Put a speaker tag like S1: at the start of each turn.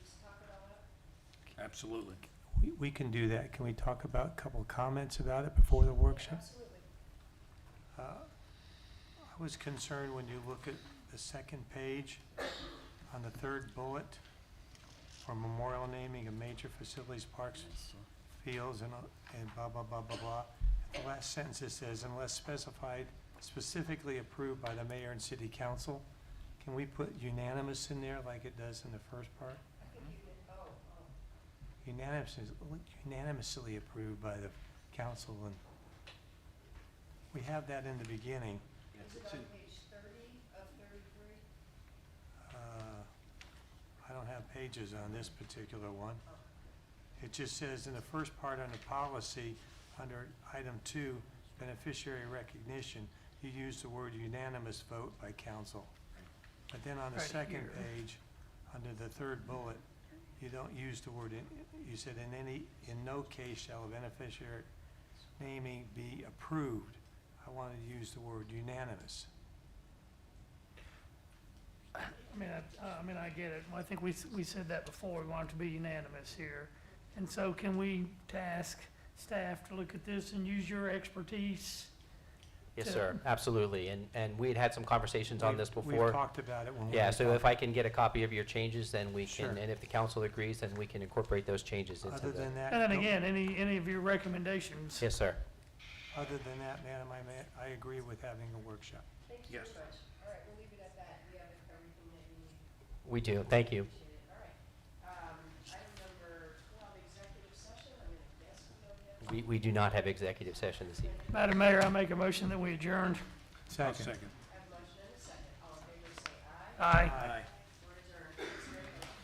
S1: Absolutely.
S2: We, we can do that. Can we talk about, a couple of comments about it before the workshop? Absolutely. I was concerned when you look at the second page, on the third bullet, for memorial naming of major facilities, parks, fields, and, uh, and blah, blah, blah, blah, blah. At The last sentence it says, unless specified, specifically approved by the mayor and city council. Can we put unanimous in there like it does in the first part? unanimously, unanimously approved by the council, and we have that in the beginning. Is it on page thirty of thirty-three? Uh, I don't have pages on this particular one. It just says in the first part under policy, under item two, beneficiary recognition, you use the word unanimous vote by council. But then on the
S3: Right
S2: second
S3: here.
S2: page, under the third bullet, you don't use the word, in- you said in any, in no case shall a beneficiary naming be approved. I wanted to use the word unanimous.
S3: I mean, I, uh, I mean, I get it. I think we, s- we said that before, we want it to be unanimous here. And so can we task staff to look at this and use your expertise?
S4: Yes,
S3: to-
S4: sir, absolutely. And, and we had had some conversations on
S2: We've-
S4: this
S2: We've
S4: before.
S2: talked about it when we.
S4: Yeah,
S2: were
S4: so if
S2: talking.
S4: I can get a copy of your changes, then we
S2: Sure.
S4: can, and if the council agrees, then we can incorporate those changes into
S2: Other
S4: the.
S2: than that.
S3: And then
S2: no-
S3: again, any, any of your recommendations?
S4: Yes, sir.
S2: Other than that, madam, I, ma- I agree with having a workshop.
S5: Thank you
S1: Yes.
S5: very much. All right, we'll leave it at that. We have everything that we need.
S4: We do, thank you.
S5: Appreciate it. All right. Um, item number twelve, executive session. I'm gonna guess we don't have.
S4: We, we do not have executive session this evening.
S3: Madam Mayor, I make a motion that we adjourn.
S1: I'll second.
S5: I have a motion and a second. All in favor, say aye.
S3: Aye.
S1: Aye.